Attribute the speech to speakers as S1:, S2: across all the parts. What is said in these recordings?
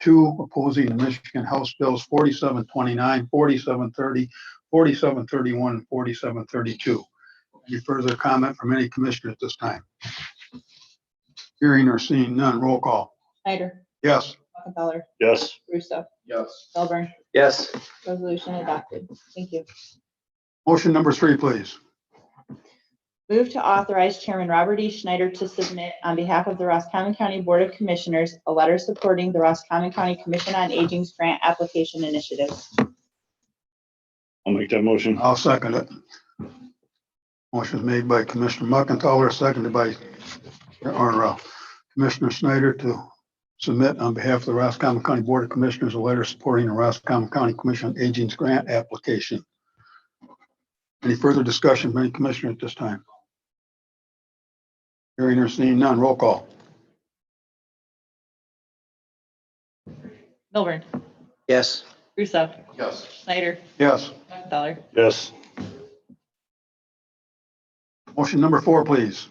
S1: two, opposing the Michigan House Bills 4729, 4730, 4731, and 4732. Any further comment from any commissioner at this time? Hearing or seeing none, roll call.
S2: Snyder,
S1: Yes.
S2: Muckenthaler,
S3: Yes.
S2: Russo,
S4: Yes.
S2: Melbourne,
S3: Yes.
S2: resolution adopted. Thank you.
S1: Motion number three, please.
S2: Move to authorize Chairman Robert E. Schneider to submit on behalf of the Roscommon County Board of Commissioners a letter supporting the Roscommon County Commission on Aging's Grant Application Initiative.
S3: I'll make that motion.
S1: I'll second it. Motion made by Commissioner Muckenthaler, seconded by, or uh, Commissioner Snyder to submit on behalf of the Roscommon County Board of Commissioners a letter supporting the Roscommon County Commission on Aging's grant application. Any further discussion by any commissioner at this time? Hearing or seeing none, roll call.
S2: Milburn,
S3: Yes.
S2: Russo,
S4: Yes.
S2: Snyder,
S1: Yes.
S2: Muckenthaler.
S3: Yes.
S1: Motion number four, please.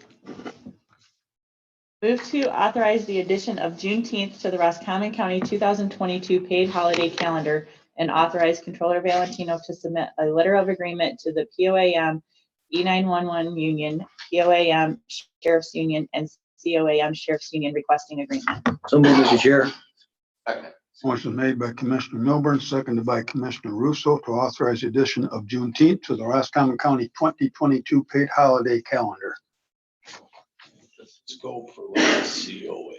S2: Move to authorize the addition of Juneteenth to the Roscommon County 2022 paid holiday calendar and authorize Controller Valentino to submit a letter of agreement to the POAM E E911 Union, POAM Sheriff's Union, and COAM Sheriff's Union requesting agreement.
S5: So move, Mr. Chair.
S4: Second.
S1: Motion made by Commissioner Milburn, seconded by Commissioner Russo to authorize the addition of Juneteenth to the Roscommon County 2022 paid holiday calendar.
S4: Let's go for like COA.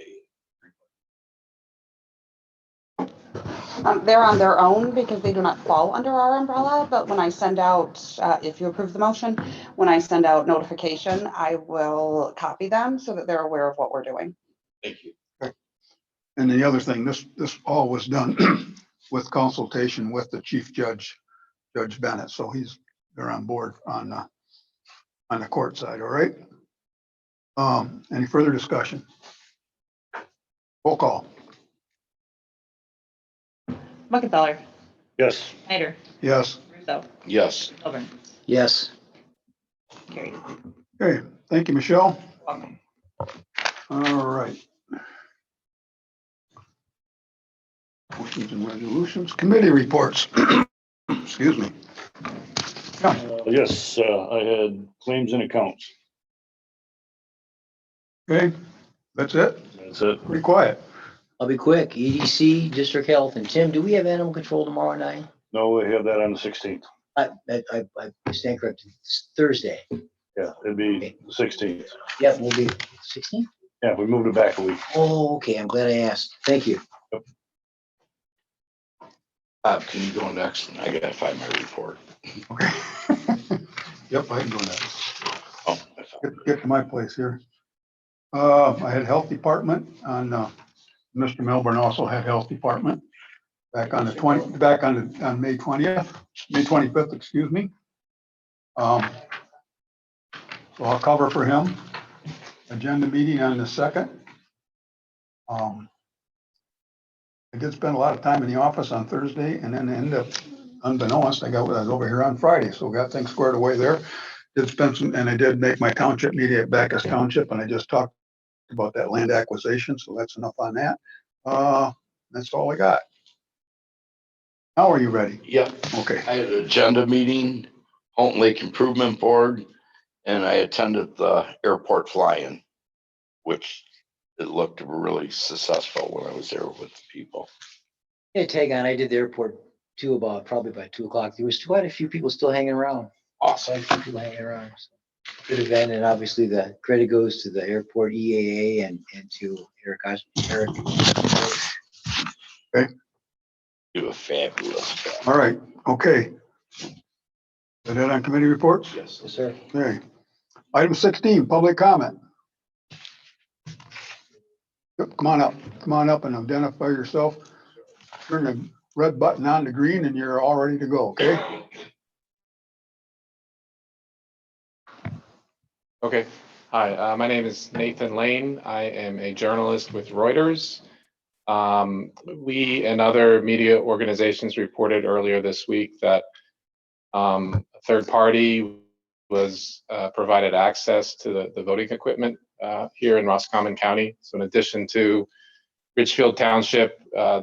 S6: Um, They're on their own because they do not fall under our umbrella, but when I send out, uh, if you approve the motion, when I send out notification, I will copy them so that they're aware of what we're doing.
S4: Thank you.
S1: And the other thing, this, this all was done with consultation with the chief judge, Judge Bennett, so he's, they're on board on, uh, on the court side, all right? Um, any further discussion? Roll call,
S2: Muckenthaler,
S3: Yes.
S2: Snyder,
S1: yes.
S2: Russo,
S4: Yes.
S2: Milburn,
S5: Yes.
S2: carried.
S1: Okay, thank you, Michelle.
S2: Welcome.
S1: All right. Motions and resolutions, committee reports. Excuse me.
S3: Uh, Yes, uh, I had claims and accounts.
S1: Okay, that's it.
S3: That's it.
S1: Pretty quiet.
S5: I'll be quick. EDC, District Health, and Tim, do we have animal control tomorrow night?
S3: No, we have that on the sixteenth.
S5: I, I, I- I stand corrected. It's Thursday.
S3: Yeah, it'd be sixteenth.
S5: Yeah, we'll be sixteen?
S3: Yeah, we moved it back a week.
S5: Oh, okay. I'm glad I asked. Thank you.
S4: Bob, Uh, can you go next? I gotta find my report.
S1: Okay. Yep, I can go next.
S4: Oh, I found
S1: Get, get to my place here. Uh, I had health department on, uh, Mr. Melbourne also had health department. Back on the twenty, back on, the- on May twentieth, May twenty-fifth, excuse me. Um, so I'll cover for him. Agenda meeting on the second. Um, I did spend a lot of time in the office on Thursday and then end up unbeknownst, I got, I was over here on Friday, so got things squared away there did spend some, and I did make my township meeting at Backus Township, and I just talked about that land acquisition, so that's enough on that. Uh, that's all I got. Now are you ready?
S4: it. Yep,
S1: Okay,
S4: I had an agenda meeting, Houghton Lake Improvement Board, and I attended the airport fly-in, which it looked really successful when I was there with the people.
S5: Hey, tag on. I did the airport too about, probably by two o'clock. There was quite a few people still hanging around.
S4: Awesome.
S5: Quite a few people hanging around. so. Good event and obviously the credit goes to the airport EAA and, and to Eric, Os- Eric.
S4: You were fabulous. job.
S1: all right, okay. Is that on committee reports?
S4: Yes.
S5: Yes, sir.
S1: Okay. Item sixteen, public comment. Yep, Come on up, come on up and identify yourself. Turn the red button on to green and you're all ready to go, okay?
S7: Okay, hi, uh, my name is Nathan Lane. I am a journalist with Reuters. Um, we and other media organizations reported earlier this week that um, a third party was uh, provided access to the, the voting equipment uh, here in Roscommon County. So in addition to Richfield Township, uh,